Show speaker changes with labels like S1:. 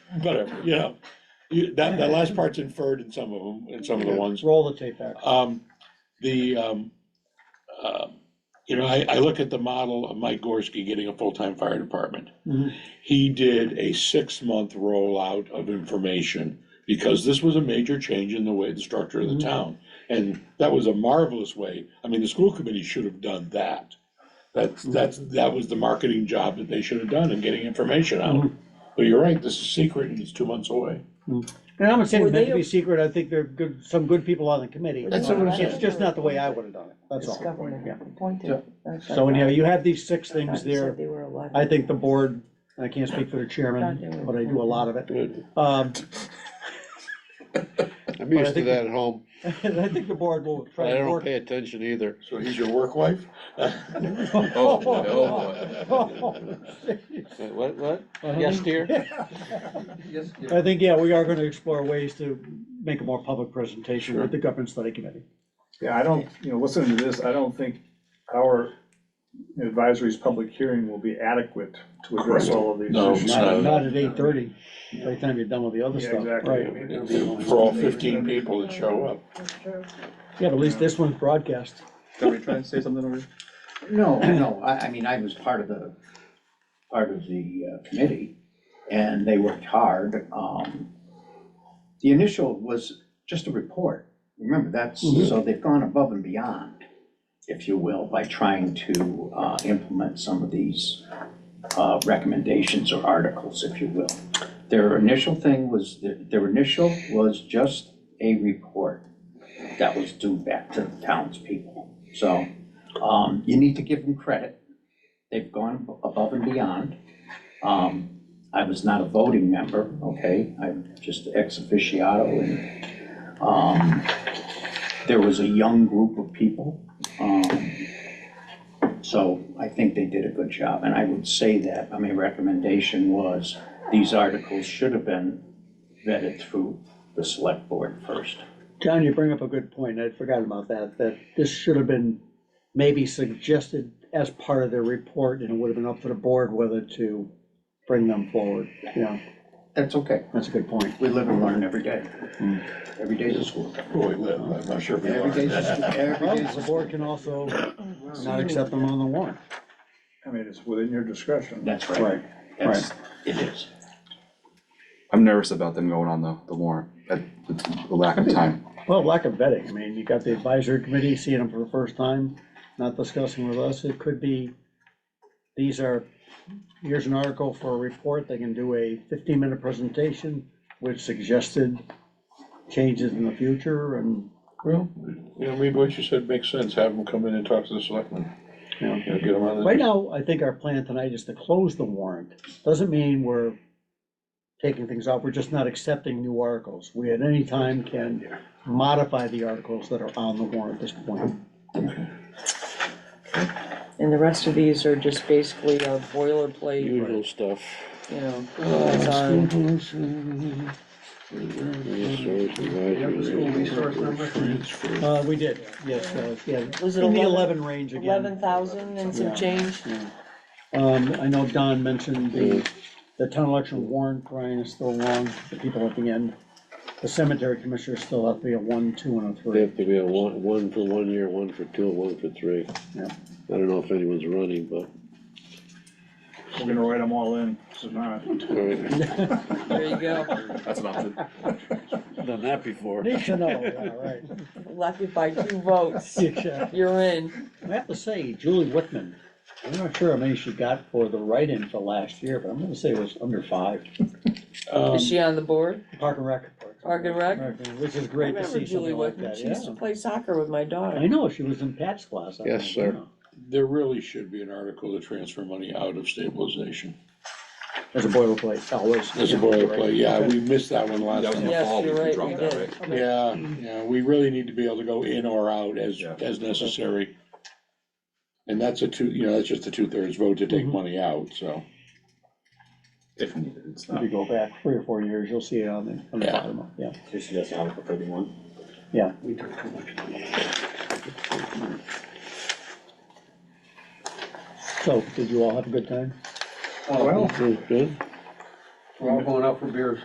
S1: whatever, you know. You, that, that last part's inferred in some of them, in some of the ones.
S2: Roll the tape back.
S1: Um, the, um, uh, you know, I, I look at the model of Mike Gorski getting a full-time fire department.
S3: Mm-hmm.
S2: Mhm.
S1: He did a six-month rollout of information, because this was a major change in the way, the structure of the
S2: Mhm.
S1: town. And that was a marvelous way, I mean, the school committee should have done that. That's, that's, that was the marketing job that they should have done in getting information out.
S2: Mhm.
S1: But you're right, this is secret and it's two months away.
S2: And I'm not saying
S4: Were
S2: it meant
S4: they
S2: to be
S4: a-
S2: secret, I think there are good, some good people on the committee.
S1: That's what I'm
S2: It's
S1: saying.
S2: just not the way I would have done it, that's
S4: It's
S2: all.
S4: government
S2: Yeah.
S4: appointed. That's what I
S2: So anyhow,
S4: thought.
S2: you have these six
S4: I thought
S2: things
S4: you said
S2: there,
S4: they were eleven.
S2: I think the board, and I can't speak for the chairman, but I do a lot of it.
S1: Good.
S2: Um,
S5: I'm
S2: But I
S5: used to
S2: think-
S5: that at home,
S2: and I think the board will
S5: but
S2: try
S5: I
S2: to
S5: don't
S2: work.
S5: pay attention either.
S1: So he's your work wife?
S6: Oh, no, boy.
S5: Wait, What, what?
S2: Uh-huh.
S5: Yes, dear?
S2: I think, yeah, we are gonna explore ways to make a more public presentation with the government study committee.
S3: Yeah, I don't, you know, listening to this, I don't think our advisory's public hearing will be adequate to address all of these
S1: No,
S3: issues.
S1: it's not.
S2: Not, not at eight thirty, by the time you're done with the other
S3: Yeah,
S2: stuff,
S3: exactly.
S2: right?
S1: For all fifteen people that show up.
S4: That's true.
S2: Yeah, but at least this one's broadcast.
S6: Somebody trying to say something over here?
S7: No, no, I, I mean, I was part of the, part of the uh, committee, and they worked hard. Um, The initial was just a report. Remember, that's, so they've gone above and beyond, if you will, by trying to uh, implement some of these uh, recommendations or articles, if you will. Their initial thing was, their- their initial was just a report that was due back to the townspeople. So um, you need to give them credit. They've gone above and beyond. Um, I was not a voting member, okay? I'm just ex officiato and, um, there was a young group of people. Um, so I think they did a good job, and I would say that, I mean, recommendation was, these articles should have been vetted through the select board first.
S2: John, you bring up a good point, I'd forgotten about that, that this should have been maybe suggested as part of their report, and it would have been up to the board whether to bring them forward, you know,
S7: That's okay,
S2: that's a good point.
S7: we live and learn every day.
S1: Hmm.
S7: Every day's a school.
S1: Boy, Oh, I'm not sure if you
S7: Every day's
S1: are.
S7: a school, every
S2: Well,
S7: day's a
S2: the board can also not accept them on the warrant.
S3: I mean, it's within your discretion.
S7: That's right. That's, it is.
S6: I'm nervous about them going on the, the warrant, at the the lack of time.
S2: Well, lack of vetting, I mean, you got the advisory committee seeing them for the first time, not discussing with us, it could be, these are, here's an article for a report, they can do a fifteen-minute presentation with suggested changes in the future, and,
S1: Well, you know, maybe what you said makes sense, have them come in and talk to the selectmen,
S2: you know.
S1: you know, get them on the.
S2: Right now, I think our plan tonight is to close the warrant, doesn't mean we're taking things off, we're just not accepting new articles. We at any time can modify the articles that are on the warrant at this point.
S4: And the rest of these are just basically our boilerplate,
S5: Usual stuff.
S4: you know, it's on
S5: Resource advisory.
S2: Uh, we did, yes, uh, yeah.
S4: Was it
S2: In the
S4: 11?
S2: eleven range again.
S4: eleven thousand and
S2: Yeah.
S4: some change.
S2: Um, I know Don mentioned the,
S4: Mm.
S2: the town election warrant, Brian, is still long, the people at the end. The cemetery commissioner still have to be a one, two, and a
S5: They
S2: three.
S5: have to be a one, one for one year, one for two, and one for three.
S2: Yeah.
S5: I don't know if anyone's running, but,
S3: We're gonna write them all in, this is not.
S5: all right,
S4: There you go.
S6: That's an option.
S5: done that before.
S2: Need to know, yeah, right.
S4: Left it by two votes.
S2: Exactly.
S4: You're in.
S2: I have to say, Julie Whitman, I'm not sure how many she got for the write-in for last year, but I'm gonna say it was under five.
S1: Um,
S4: Is she on the board?
S2: Park and Rec.
S4: Park and Rec?
S2: Which is
S4: I
S2: great to
S4: remember
S2: see
S4: Julie
S2: something like
S4: Whitman.
S2: that,
S4: She used to
S2: yeah.
S4: play soccer with my
S2: I
S4: daughter.
S2: know, she was in Pat's class. I
S5: Yes,
S2: think,
S5: sir.
S2: yeah.
S1: There really should be an article to transfer money out of stabilization.
S2: As a boilerplate, Oh, always.
S1: As a boilerplate, yeah, we missed that one last time.
S4: Yes,
S6: Fall, we
S4: you're right,
S6: dropped
S4: we
S6: that,
S4: did.
S1: Yeah, yeah, we really need to be able to go in or out as,
S6: Yeah.
S1: as necessary. And that's a two, you know, that's just a two-thirds vote to take
S2: Mhm.
S1: money out, so.
S6: If needed, it's
S2: If
S6: not.
S2: you go back three or four years, you'll see it on the, on the
S1: Yeah.
S2: bottom, of- yeah.
S7: She doesn't have a thirty-one?
S2: Yeah. So, did you all have a good time?
S7: Well,
S5: Good.
S7: we're all going out for beers.